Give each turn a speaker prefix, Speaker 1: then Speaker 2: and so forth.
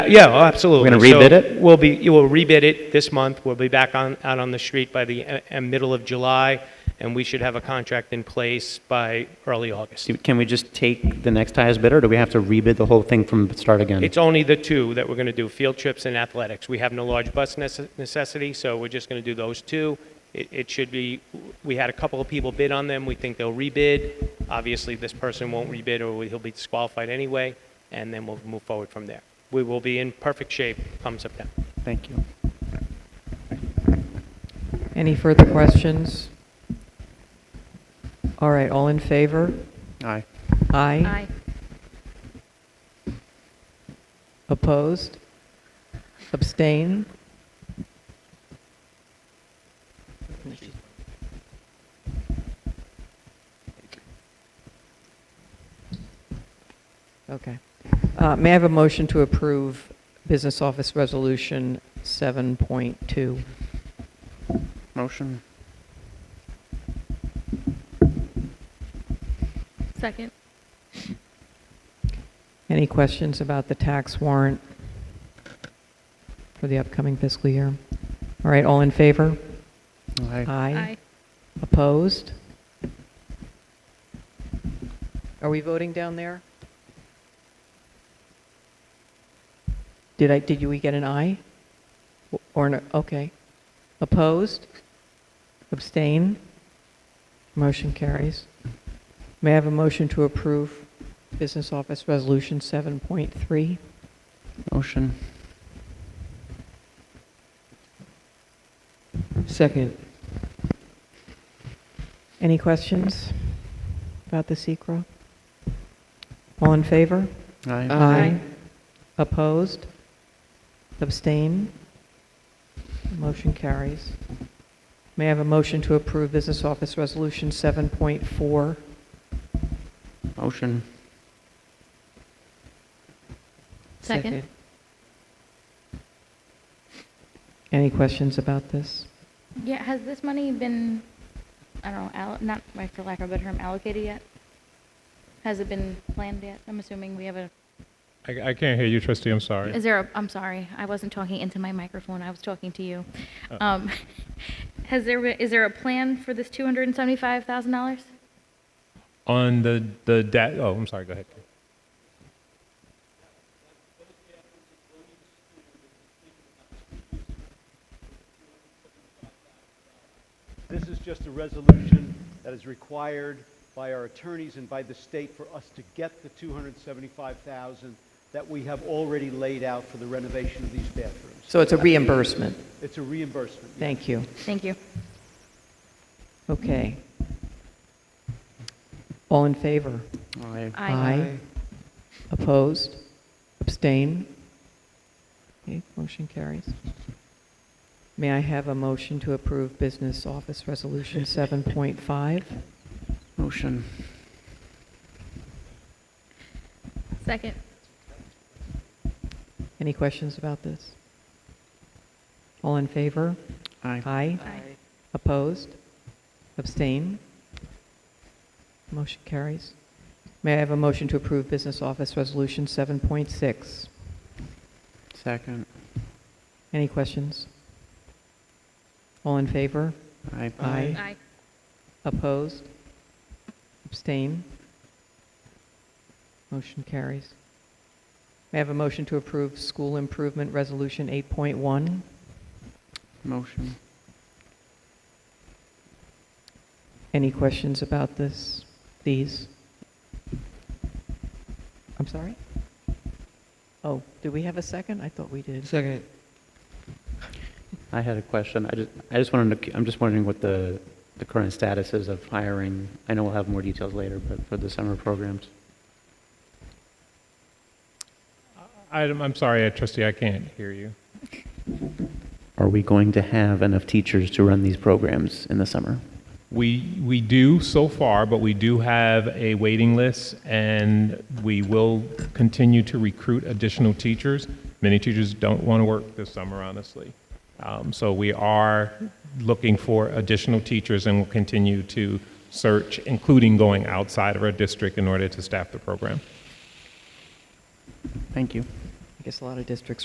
Speaker 1: Yeah, oh, absolutely.
Speaker 2: We're gonna rebid
Speaker 1: So
Speaker 2: it?
Speaker 1: We'll be, you will rebid it this month. We'll be back on, out on the street by the uh, uh, middle of July, and we should have a contract in place by early August.
Speaker 2: Do- Can we just take the next highest bidder, or do we have to rebid the whole thing from the start again?
Speaker 1: It's only the two that we're going to do, field trips and athletics. We have no large bus nece- necessity, so we're just going to do those two. It, it should be, we had a couple of people bid on them. We think they'll rebid. Obviously, this person won't rebid, or he'll be disqualified anyway, and then we'll move forward from there. We will be in perfect shape come September.
Speaker 2: Thank you.
Speaker 3: Any further questions? All right, all in favor?
Speaker 2: Aye.
Speaker 3: Aye.
Speaker 4: Aye.
Speaker 3: Opposed? Abstain? Okay. Uh, May I have a motion to approve Business Office Resolution 7.2?
Speaker 2: Motion.
Speaker 4: Second.
Speaker 3: Any questions about the tax warrant for the upcoming fiscal year? All right, all in favor?
Speaker 2: Aye.
Speaker 3: Aye. Opposed? Are we voting down there? Did I, did you- we get an aye? Or, an okay. Opposed? Abstain? Motion carries. May I have a motion to approve Business Office Resolution 7.3?
Speaker 2: Motion.
Speaker 3: Second. Any questions about the SECR? All in favor?
Speaker 2: Aye.
Speaker 4: Aye.
Speaker 3: Opposed? Abstain? Motion carries. May I have a motion to approve Business Office Resolution 7.4?
Speaker 2: Motion.
Speaker 4: Second.
Speaker 3: Any questions about this?
Speaker 4: Yeah, has this money been, I don't know, all- not, like, for lack of a better term, allocated yet? Has it been planned yet? I'm assuming we have a,
Speaker 5: I, I can't hear you, trustee, I'm sorry.
Speaker 4: is there a, I'm sorry, I wasn't talking into my microphone, I was talking to you. Um, Has there, been- is there a plan for this $275,000?
Speaker 5: On the, the debt, oh, I'm sorry, go ahead.
Speaker 6: This is just a resolution that is required by our attorneys and by the state for us to get the 275,000 that we have already laid out for the renovation of these bathrooms.
Speaker 3: So it's a reimbursement.
Speaker 6: It's a reimbursement. yes.
Speaker 3: Thank you.
Speaker 4: Thank you.
Speaker 3: Okay. All in favor?
Speaker 2: Aye.
Speaker 4: Aye.
Speaker 3: Opposed? Abstain? Okay, motion carries. May I have a motion to approve Business Office Resolution 7.5?
Speaker 2: Motion.
Speaker 4: Second.
Speaker 3: Any questions about this? All in favor?
Speaker 2: Aye.
Speaker 3: Aye.
Speaker 4: Aye.
Speaker 3: Opposed? Abstain? Motion carries. May I have a motion to approve Business Office Resolution 7.6?
Speaker 2: Second.
Speaker 3: Any questions? All in favor?
Speaker 2: Aye.
Speaker 3: Aye.
Speaker 4: Aye.
Speaker 3: Opposed? Abstain? Motion carries. May I have a motion to approve School Improvement Resolution 8.1?
Speaker 2: Motion.
Speaker 3: Any questions about this, these? I'm sorry? Oh, do we have a second? I thought we did.
Speaker 7: Second.
Speaker 2: I had a question. I just, I just wanted to, I'm just wondering what the, the current status is of hiring. I know we'll have more details later, but for the summer programs.
Speaker 5: I, I'm sorry, uh, trustee, I can't hear you.
Speaker 2: Are we going to have enough teachers to run these programs in the summer?
Speaker 5: We, we do so far, but we do have a waiting list, and we will continue to recruit additional teachers. Many teachers don't want to work this summer, honestly. Um, so we are looking for additional teachers and will continue to search, including going outside of our district in order to staff the program.
Speaker 2: Thank you.
Speaker 3: I guess a lot of districts